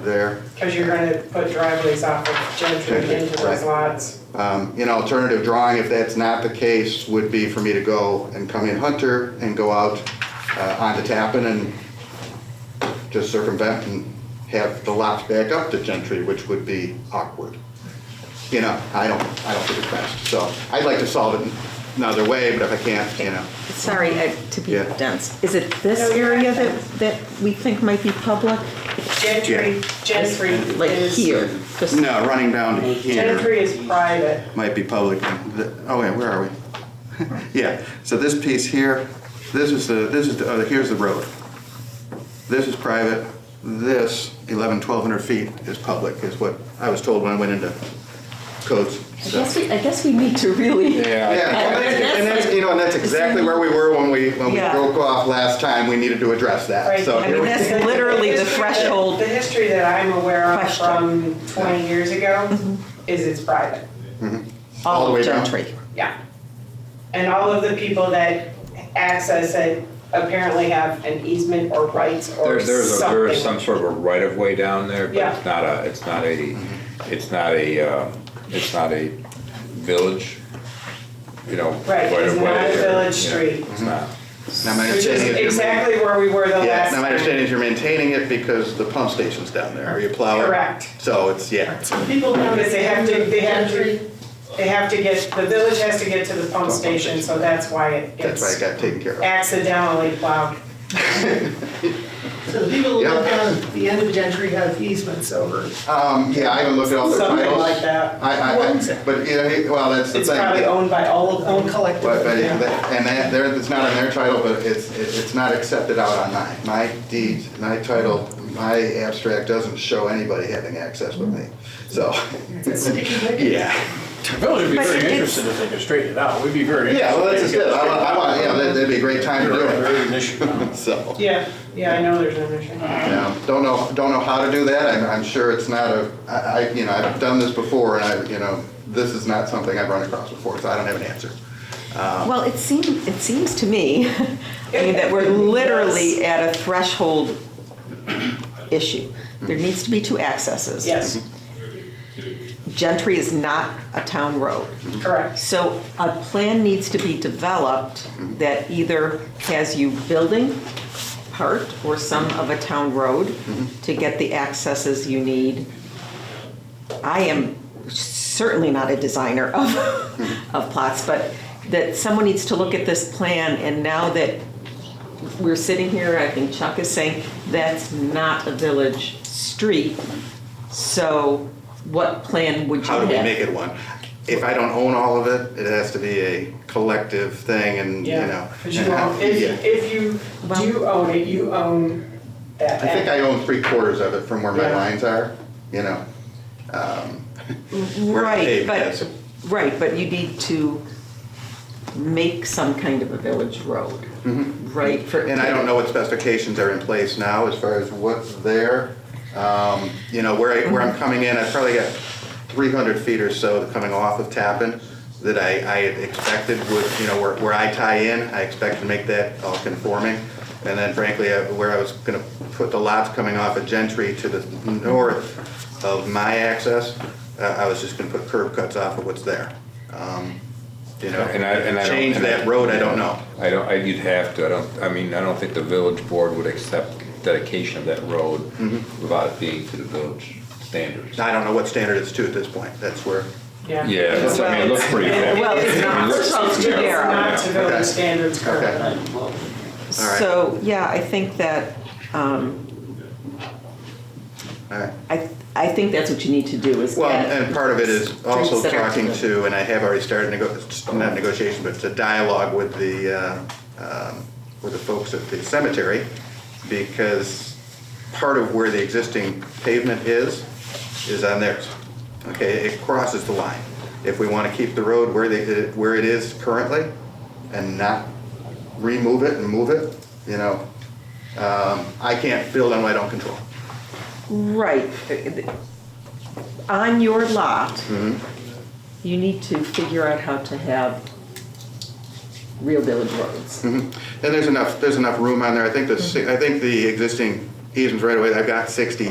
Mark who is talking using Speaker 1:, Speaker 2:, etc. Speaker 1: there.
Speaker 2: Because you're gonna put driveways off of Gentry
Speaker 1: Gentry,
Speaker 2: into those
Speaker 1: right.
Speaker 2: lots.
Speaker 1: Um, An alternative drawing, if that's not the case, would be for me to go and come in Hunter and go out uh, onto Tappan and just circumvent and have the lots back up to Gentry, which would be awkward. You know, I don't, I don't think it's best, so I'd like to solve it another way, but if I can't, you know.
Speaker 3: Sorry uh, to be
Speaker 1: Yeah.
Speaker 3: dense. Is it this
Speaker 2: No, you're
Speaker 3: area
Speaker 2: not
Speaker 3: that,
Speaker 2: dense.
Speaker 3: that we think might be public?
Speaker 2: Gentry, Gentry
Speaker 3: Like
Speaker 2: is,
Speaker 3: here? just-
Speaker 1: No, running down to here
Speaker 2: Gentry is private.
Speaker 1: might be public. The- Oh, wait, where are we? Yeah, so this piece here, this is the, this is, the oh, here's the road. This is private, this 11, 1,200 feet is public, is what I was told when I went into codes.
Speaker 3: I
Speaker 1: so.
Speaker 3: guess we, I guess we need to really.
Speaker 1: Yeah, well, that's- and that's, you know, and that's exactly where we were when we, when we
Speaker 3: Yeah.
Speaker 1: broke off last time, we needed to address that,
Speaker 2: Right.
Speaker 1: so.
Speaker 2: I
Speaker 3: mean,
Speaker 1: here we-
Speaker 3: that's
Speaker 2: The- the
Speaker 3: literally the
Speaker 2: history that-
Speaker 3: threshold
Speaker 2: The history that I'm aware of
Speaker 3: question. Mm-hmm.
Speaker 2: from 20 years ago is it's private,
Speaker 1: all the
Speaker 3: of
Speaker 1: way down.
Speaker 3: Gentry.
Speaker 2: yeah. And all of the people that access it apparently have an easement or rights or
Speaker 4: There, there's a, there is some
Speaker 2: something.
Speaker 4: sort of a right of way down there, but
Speaker 2: Yeah.
Speaker 4: it's not a, it's not a, it's not a, um, it's not a village, you know.
Speaker 2: Right, it's
Speaker 4: right of way
Speaker 2: not a
Speaker 4: or-
Speaker 2: village
Speaker 4: yeah,
Speaker 2: street.
Speaker 4: It's not.
Speaker 1: Now, my
Speaker 2: Which
Speaker 1: understanding
Speaker 2: is
Speaker 1: is you're-
Speaker 2: exactly where we were the
Speaker 1: Yeah,
Speaker 2: last
Speaker 1: now my
Speaker 2: time.
Speaker 1: understanding is you're maintaining it because the pump station's down there, or you plow it.
Speaker 2: Correct.
Speaker 1: So it's, yeah.
Speaker 2: People notice they have to, they have to, they have to get, the village has to get to the pump station, so that's why it
Speaker 1: That's why it
Speaker 2: gets
Speaker 1: got taken care of.
Speaker 2: accidentally plowed.
Speaker 5: So the people that live
Speaker 1: Yeah.
Speaker 5: down at the end of Gentry have easements over.
Speaker 1: Um, yeah, I haven't looked at all the titles.
Speaker 2: Something like that.
Speaker 1: I, I, I, but, you know, he- well, that's the
Speaker 2: It's
Speaker 1: thing.
Speaker 2: probably owned by all of them.
Speaker 1: But, but,
Speaker 2: Yeah.
Speaker 1: it- that- and that, there, it's not on their title, but it's, it- it's not accepted out on mine. My deed, my title, my abstract doesn't show anybody having access with me, so,
Speaker 5: It's sticky wicket.
Speaker 1: yeah.
Speaker 6: The village would be
Speaker 3: But
Speaker 6: very
Speaker 3: it's-
Speaker 6: interested if they could straighten it out. We'd be very interested.
Speaker 1: Yeah, well, that's just
Speaker 6: if
Speaker 1: it.
Speaker 6: they
Speaker 1: I
Speaker 6: could
Speaker 1: want, I want, you know, that'd that'd be a great time to do
Speaker 6: straighten it out.
Speaker 1: it,
Speaker 6: Very initiative.
Speaker 1: so.
Speaker 2: Yeah, yeah, I know there's an issue.
Speaker 1: Yeah, don't know, don't know how to do that, I'm, I'm sure it's not a, I, I, you know, I've done this before, and I, you know, this is not something I've run across before, so I don't have an answer.
Speaker 3: Well, it seems, it seems to me, I mean, that we're literally at a threshold issue. There needs to be two accesses.
Speaker 2: Yes,
Speaker 3: Gentry is not a town road.
Speaker 2: correct.
Speaker 3: So a plan needs to be developed that either has you building part or some of a town road to get the accesses you need. I am certainly not a designer of, of plots, but that someone needs to look at this plan and now that we're sitting here, I think Chuck is saying, that's not a village street. So what plan would you
Speaker 1: How
Speaker 3: have?
Speaker 1: do we make it one? If I don't own all of it, it has to be a collective thing, and, you know.
Speaker 2: Yeah, because you
Speaker 1: and how-
Speaker 2: own, if,
Speaker 1: yeah.
Speaker 2: if you do own it, you own that.
Speaker 1: I think I own three quarters of it from where my
Speaker 2: Yeah.
Speaker 1: lines are, you know. um, where the
Speaker 3: Right,
Speaker 1: pavement is.
Speaker 3: but, right, but you need to make some kind of a village road, right? for-
Speaker 1: Mm-hmm. And I don't know what specifications are in place now as far as what's there. Um, You know, where I, where I'm coming in, I've probably got 300 feet or so coming off of Tappan that I, I had expected would, you know, where, where I tie in, I expect to make that all conforming. And then frankly, I- where I was gonna put the lots coming off of Gentry to the north of my access, uh, I was just gonna put curb cuts off of what's there. Um, You know,
Speaker 4: And I- and I don't-
Speaker 1: change
Speaker 4: and I-
Speaker 1: that road, I don't know.
Speaker 4: I don't, I, you'd have to, I don't, I mean, I don't think the village board would accept dedication of that road
Speaker 1: Mm-hmm.
Speaker 4: without it being to the village standards.
Speaker 1: I don't know what standard it's to at this point, that's where.
Speaker 2: Yeah.
Speaker 4: Yeah, it's- I mean, it looks pretty.
Speaker 3: Well, it's not, first of all, it's too
Speaker 2: It's
Speaker 3: narrow.
Speaker 2: not to village
Speaker 1: Okay.
Speaker 2: standards currently.
Speaker 1: right.
Speaker 3: So, yeah, I think that, um,
Speaker 1: All right.
Speaker 3: I, I think that's what you need to do is
Speaker 1: Well,
Speaker 3: get-
Speaker 1: and part of it is also
Speaker 3: Streets that are
Speaker 1: talking
Speaker 3: to
Speaker 1: to, and I have already started, nego- not negotiation, but to dialogue with the, uh, um, with the folks at the cemetery, because part of where the existing pavement is, is on theirs. Okay, it crosses the line. If we want to keep the road where they, where it is currently, and not remove it and move it, you know, um, I can't build on what I don't control.
Speaker 3: Right. On your lot,
Speaker 1: Mm-hmm.
Speaker 3: you need to figure out how to have real village roads.
Speaker 1: And there's enough, there's enough room on there. I think the, si- I think the existing easements right away, I've got 60